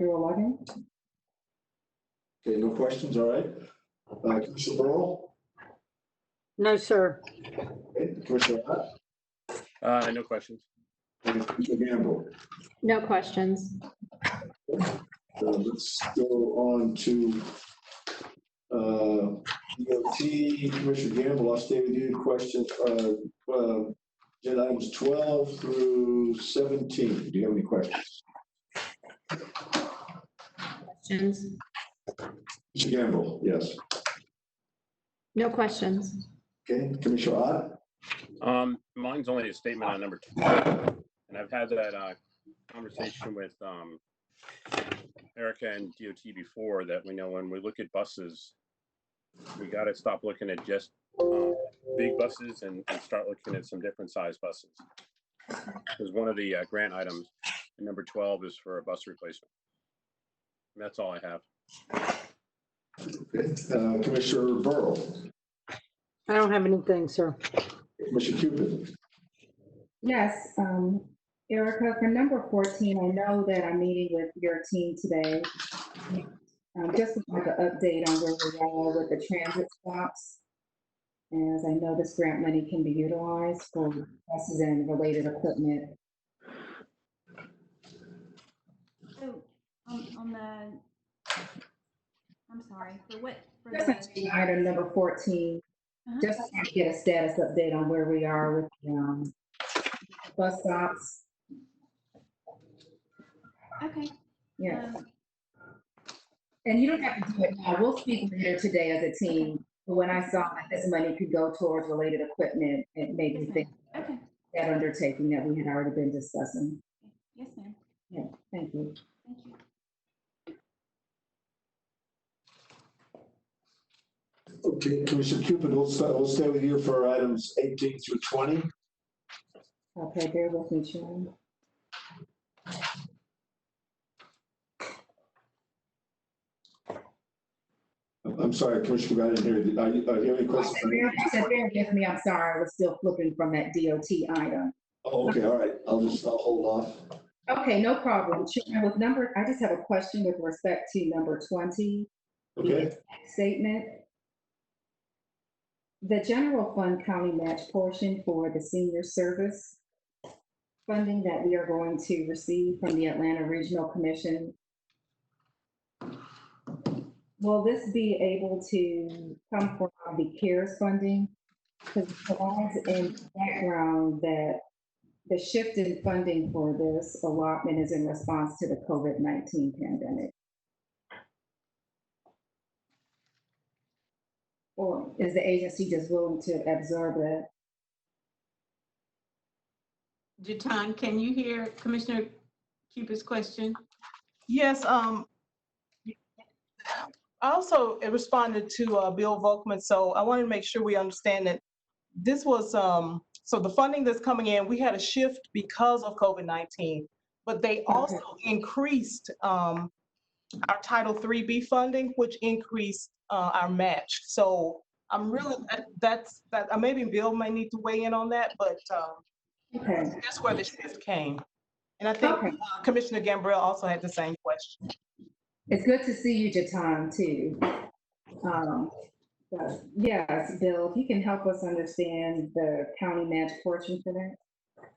Mayor Lighting? Okay, no questions, all right. Uh, Commissioner Burrow? No, sir. Okay, Commissioner Hart? Uh, no questions. And Commissioner Gamble? No questions. Uh, Let's go on to uh, DOT, Commissioner Gamble, I'll stay with you. Question, uh, uh, agenda items 12 through 17. Do you have any questions? Questions? Commissioner Gamble, yes. No questions. Okay, Commissioner Hart? Um, mine's only a statement on number two. And I've had that, uh, conversation with, um, Erica and DOT before that we know when we look at buses, we gotta stop looking at just, uh, big buses and, and start looking at some different size buses. Because one of the, uh, grant items, number twelve is for a bus replacement. And that's all I have. Okay, uh, Commissioner Burrow? I don't have anything, sir. Commissioner Cupid? Yes, um, Erica, for number 14, I know that I'm meeting with your team today. Um, Just like an update on where we are with the transit stops. As I know this grant money can be utilized for buses and related equipment. So, on, on the, I'm sorry, for what, for Just the, on Item number 14, Uh-huh. just to get a status update on where we are with um, bus stops. okay. Yeah. um, And you don't have to do it now. We'll speak later today as a team. But when I saw that this money could go towards related equipment, it made me yes, think ma'am. Okay, that undertaking that we had already been discussing. yes, ma'am, Thank you. thank you. Okay, Commissioner Cupid, we'll start, we'll stay with you for items 18 through 20. Okay, bear with me, Sharon. I'm I'm sorry, Commissioner, Cupid, I didn't hear you. Are you, are you any I questions? said, bear- I said, bear with me. I'm sorry. I was still flipping from that DOT item. Oh, okay, all right, I'll just, I'll hold off. Okay, no problem. Sharon, With number, I just have a question with respect to number 20. Okay, statement. The general fund county match portion for the senior service funding that we are going to receive from the Atlanta Regional Commission. Will this be able to come from the CARES funding? Because it provides in the background that the shift in funding for this allotment is in response to the COVID-19 pandemic. Or is the agency just willing to absorb that? Jatan, can you hear Commissioner Cupid's question? Yes, um, I also responded to, uh, Bill Volkman, so I wanted to make sure we understand that this was, um, so the funding that's coming in, we had a shift because of COVID-19, but they also increased, um, our Title III B funding, which increased, uh, our match. So I'm really, that- that's, that, uh, maybe Bill may need to weigh in on that, but, um, Okay, that's where the shift came. And I think Okay. uh, Commissioner Gambrell also had the same question. it's good to see you, Jatan, too. Um, but Yes, Bill, if you can help us understand the county match portion for that?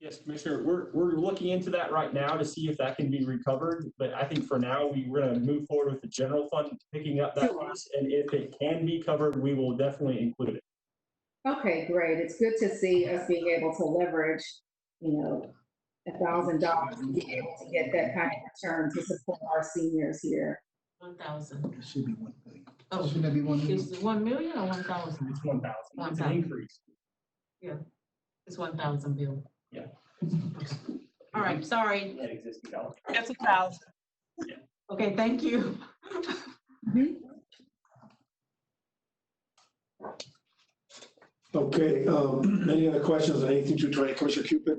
Yes, Commissioner, we're, we're looking into that right now to see if that can be recovered, but I think for now, we, we're gonna move forward with the general fund picking up that Sure. piece, and if it can be covered, we will definitely include it. Okay, great. It's good to see us being able to leverage, you know, a thousand dollars to be able to get that kind of return to support our seniors here. 1,000. It should be one million. Oh, Shouldn't that be one million? is it 1 million or 1,000? It's one thousand, it's an 1,000. increase. It's 1,000, Bill. Yeah. All right, sorry. That existing dollar. That's a thousand. Okay, thank you. okay, um, any other questions on 18 through 20, Commissioner Cupid?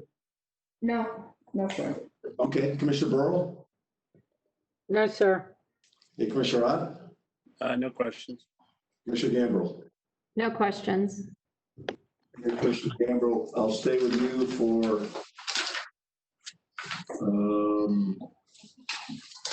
No, no, sir. Okay, Commissioner Burrow? No, sir. Hey, Commissioner Ott? Uh, no questions. Commissioner Gamble? No questions. Okay, Commissioner Gamble, I'll stay with you for um,